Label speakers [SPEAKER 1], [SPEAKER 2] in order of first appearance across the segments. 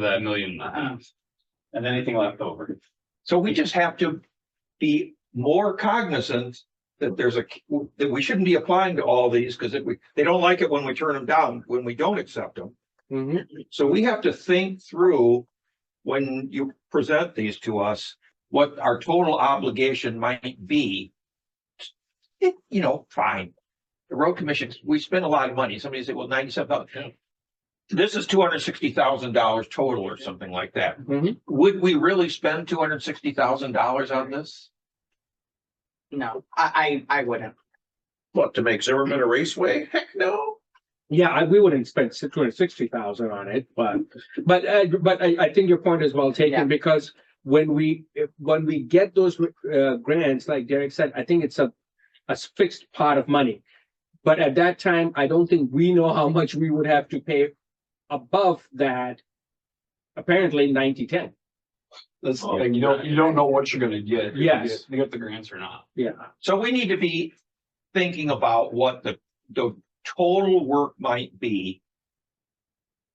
[SPEAKER 1] that million and a half. And anything left over.
[SPEAKER 2] So we just have to be more cognizant that there's a, that we shouldn't be applying to all these because if we, they don't like it when we turn them down, when we don't accept them. So we have to think through when you present these to us, what our total obligation might be. It, you know, fine. The road commission, we spend a lot of money. Somebody said, well, ninety-seven
[SPEAKER 1] Yeah.
[SPEAKER 2] thousand. This is two hundred sixty thousand dollars total or something like that.
[SPEAKER 3] Mm-hmm.
[SPEAKER 2] Would we really spend two hundred sixty thousand dollars on this?
[SPEAKER 4] No, I, I, I wouldn't.
[SPEAKER 2] What, to make Zimmerman a raceway? Heck no.
[SPEAKER 3] Yeah, I, we wouldn't spend six hundred sixty thousand on it, but, but, uh, but I, I think your point is well
[SPEAKER 4] Yeah.
[SPEAKER 3] taken because when we, if- when we get those, uh, grants, like Derek said, I think it's a, a fixed pot of money. But at that time, I don't think we know how much we would have to pay above that, apparently ninety, ten.
[SPEAKER 1] That's, the thing, you don't, you don't know what you're gonna get. if you
[SPEAKER 3] Yes.
[SPEAKER 1] get- You get the grants or not.
[SPEAKER 3] Yeah,
[SPEAKER 2] So we need to be thinking about what the, the total work might be.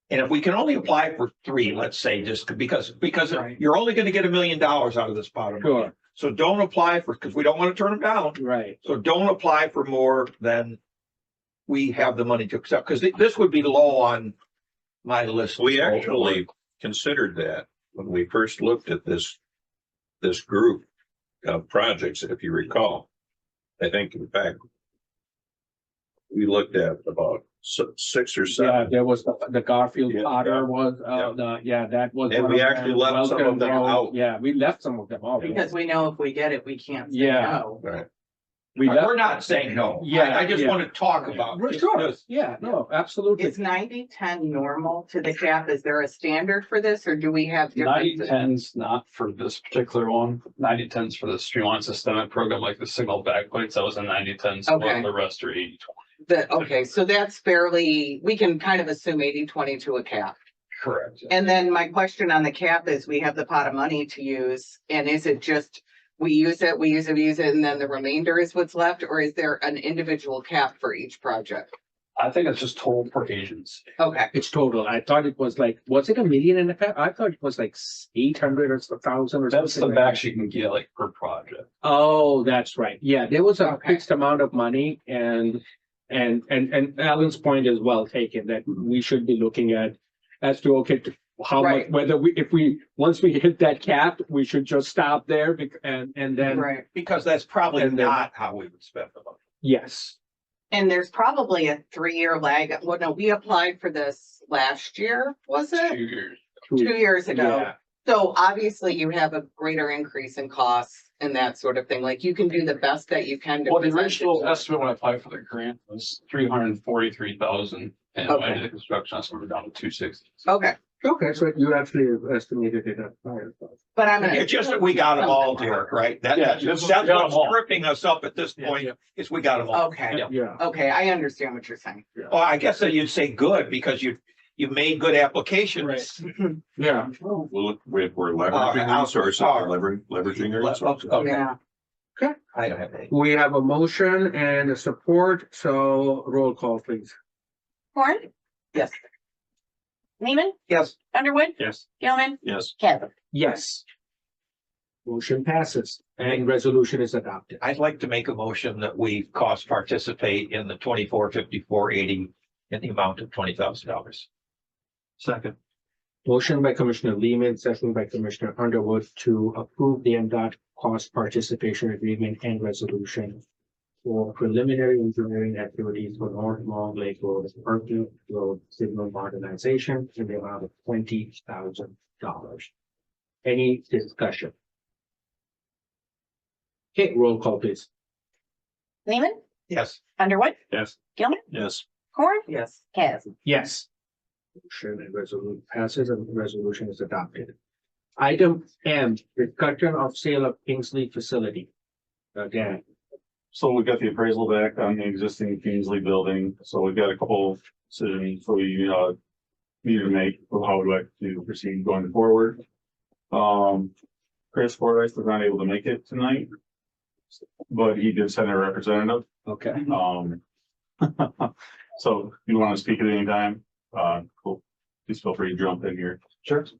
[SPEAKER 2] And if we can only apply for three, let's say, just because, because
[SPEAKER 4] Right.
[SPEAKER 2] you're only gonna get a million dollars out of this pot of money.
[SPEAKER 3] sure,
[SPEAKER 2] So don't apply for, because we don't want to turn them down.
[SPEAKER 3] right.
[SPEAKER 2] So don't apply for more than we have the money to accept, because this would be low on my list.
[SPEAKER 5] We actually considered that when we first looked at this, this group of projects, if you recall. I think in fact, we looked at about si- six or
[SPEAKER 3] Yeah,
[SPEAKER 5] seven,
[SPEAKER 3] there was the, the Garfield
[SPEAKER 5] Yeah, yeah.
[SPEAKER 3] Potter was, uh, the, yeah, that was.
[SPEAKER 5] And
[SPEAKER 3] one
[SPEAKER 5] we
[SPEAKER 3] of
[SPEAKER 5] actually
[SPEAKER 3] them.
[SPEAKER 5] left some of
[SPEAKER 3] Welcome
[SPEAKER 5] them
[SPEAKER 3] Road.
[SPEAKER 5] out.
[SPEAKER 3] Yeah, we left some of them out.
[SPEAKER 4] Because we know if we get it, we can't say
[SPEAKER 3] Yeah.
[SPEAKER 4] no.
[SPEAKER 3] We left,
[SPEAKER 2] We're not saying no. I-
[SPEAKER 3] Yeah,
[SPEAKER 2] I just
[SPEAKER 3] yeah.
[SPEAKER 2] want to talk about.
[SPEAKER 3] Well,
[SPEAKER 2] just-
[SPEAKER 3] sure.
[SPEAKER 2] just-
[SPEAKER 3] yeah, no, absolutely.
[SPEAKER 4] Is ninety, ten normal to the cap? Is there a standard for this or do we have
[SPEAKER 1] Ninety
[SPEAKER 4] differences?
[SPEAKER 1] tens, not for this particular one, ninety tens for the streamline systemic program, like the signal backlights, that was a ninety ten
[SPEAKER 4] Okay.
[SPEAKER 1] split, the rest are eighty twenty.
[SPEAKER 4] The, okay, so that's fairly, we can kind of assume eighty, twenty to a cap.
[SPEAKER 1] Correct.
[SPEAKER 4] And then my question on the cap is, we have the pot of money to use and is it just, we use it, we use it, we use it, and then the remainder is what's left? Or is there an individual cap for each project?
[SPEAKER 1] I think it's just total per agency.
[SPEAKER 4] Okay,
[SPEAKER 3] It's total. I thought it was like, was it a million and a half? I thought it was like eight hundred or a thousand or something.
[SPEAKER 1] That's the
[SPEAKER 3] like
[SPEAKER 1] max
[SPEAKER 3] that.
[SPEAKER 1] you can get like per project.
[SPEAKER 3] Oh, that's right. Yeah, there was a
[SPEAKER 4] Okay.
[SPEAKER 3] fixed amount of money and, and, and, and Alan's point is well taken that we should be looking at as to, okay, to- how much,
[SPEAKER 4] Right.
[SPEAKER 3] whether we, if we, once we hit that cap, we should just stop there bec- and, and then,
[SPEAKER 4] right.
[SPEAKER 2] Because that's probably
[SPEAKER 3] And uh, then-
[SPEAKER 2] not how we would spend the money.
[SPEAKER 3] yes.
[SPEAKER 4] And there's probably a three-year lag. Well, no, we applied for this last year, was
[SPEAKER 1] Two
[SPEAKER 4] it?
[SPEAKER 1] years.
[SPEAKER 4] Two years ago.
[SPEAKER 3] Yeah.
[SPEAKER 4] So obviously you have a greater increase in costs and that sort of thing. Like you can do the best that you can. to
[SPEAKER 1] Well, the
[SPEAKER 4] present it
[SPEAKER 1] original
[SPEAKER 4] to us.
[SPEAKER 1] estimate when I applied for the grant was three hundred and forty-three thousand. And when I
[SPEAKER 4] Okay.
[SPEAKER 1] did the construction, I started down to two sixty.
[SPEAKER 4] Okay,
[SPEAKER 3] Okay, so you actually estimated it at higher.
[SPEAKER 4] but I'm. gonna-
[SPEAKER 2] It's just that we got them all, Derek, right? That,
[SPEAKER 1] Yeah,
[SPEAKER 2] that's,
[SPEAKER 1] this is-
[SPEAKER 2] that's
[SPEAKER 1] we got 'em all.
[SPEAKER 2] what's tripping us up at this
[SPEAKER 3] Yeah,
[SPEAKER 2] point,
[SPEAKER 3] yeah.
[SPEAKER 2] is we got them all.
[SPEAKER 4] Okay,
[SPEAKER 1] Yeah.
[SPEAKER 3] Yeah,
[SPEAKER 4] okay, I understand what you're saying.
[SPEAKER 2] Well, I guess that you'd say good, because you, you made good applications.
[SPEAKER 3] yeah.
[SPEAKER 5] We'll- we're we're
[SPEAKER 2] Uh,
[SPEAKER 5] leveraging resources,
[SPEAKER 2] uh,
[SPEAKER 5] leveraging, leveraging our resources.
[SPEAKER 2] Okay,
[SPEAKER 4] Yeah,
[SPEAKER 2] I don't have any.
[SPEAKER 3] We have a motion and a support, so roll call please.
[SPEAKER 6] Horn?
[SPEAKER 4] Yes.
[SPEAKER 6] Neiman,
[SPEAKER 2] Yes.
[SPEAKER 6] Underwood,
[SPEAKER 3] Yes.
[SPEAKER 6] Gilman,
[SPEAKER 5] Yes.
[SPEAKER 6] Kevin.
[SPEAKER 3] Yes. Motion passes and resolution is adopted.
[SPEAKER 2] I'd like to make a motion that we cost participate in the twenty-four fifty-four eighty in the amount of twenty thousand dollars.
[SPEAKER 1] Second.
[SPEAKER 3] Motion by Commissioner Lehman, second by Commissioner Underwood to approve the MDOT cost participation agreement and resolution for preliminary engineering activities for North Long Lake Road, Parkview Road Signal Modernization in the amount of twenty thousand dollars. Any discussion? Okay, roll call please.
[SPEAKER 6] Neiman,
[SPEAKER 2] Yes,
[SPEAKER 6] Underwood,
[SPEAKER 1] Yes.
[SPEAKER 6] Gilman,
[SPEAKER 5] Yes.
[SPEAKER 6] Horn,
[SPEAKER 4] yes.
[SPEAKER 6] Kevin.
[SPEAKER 3] Yes. Motion and resolution passes and resolution is adopted. Item M, discussion of sale of Kingsley facility. Again,
[SPEAKER 7] So we've got the appraisal back on the existing Kingsley building, so we've got a couple of decisions we uh. Need to make, of how would like to proceed going forward. Um, Chris Fordyce was not able to make it tonight. But he did send a representative,
[SPEAKER 3] okay,
[SPEAKER 7] um. So if you want to speak at any time, uh, cool, please feel free to jump in here.
[SPEAKER 3] Sure.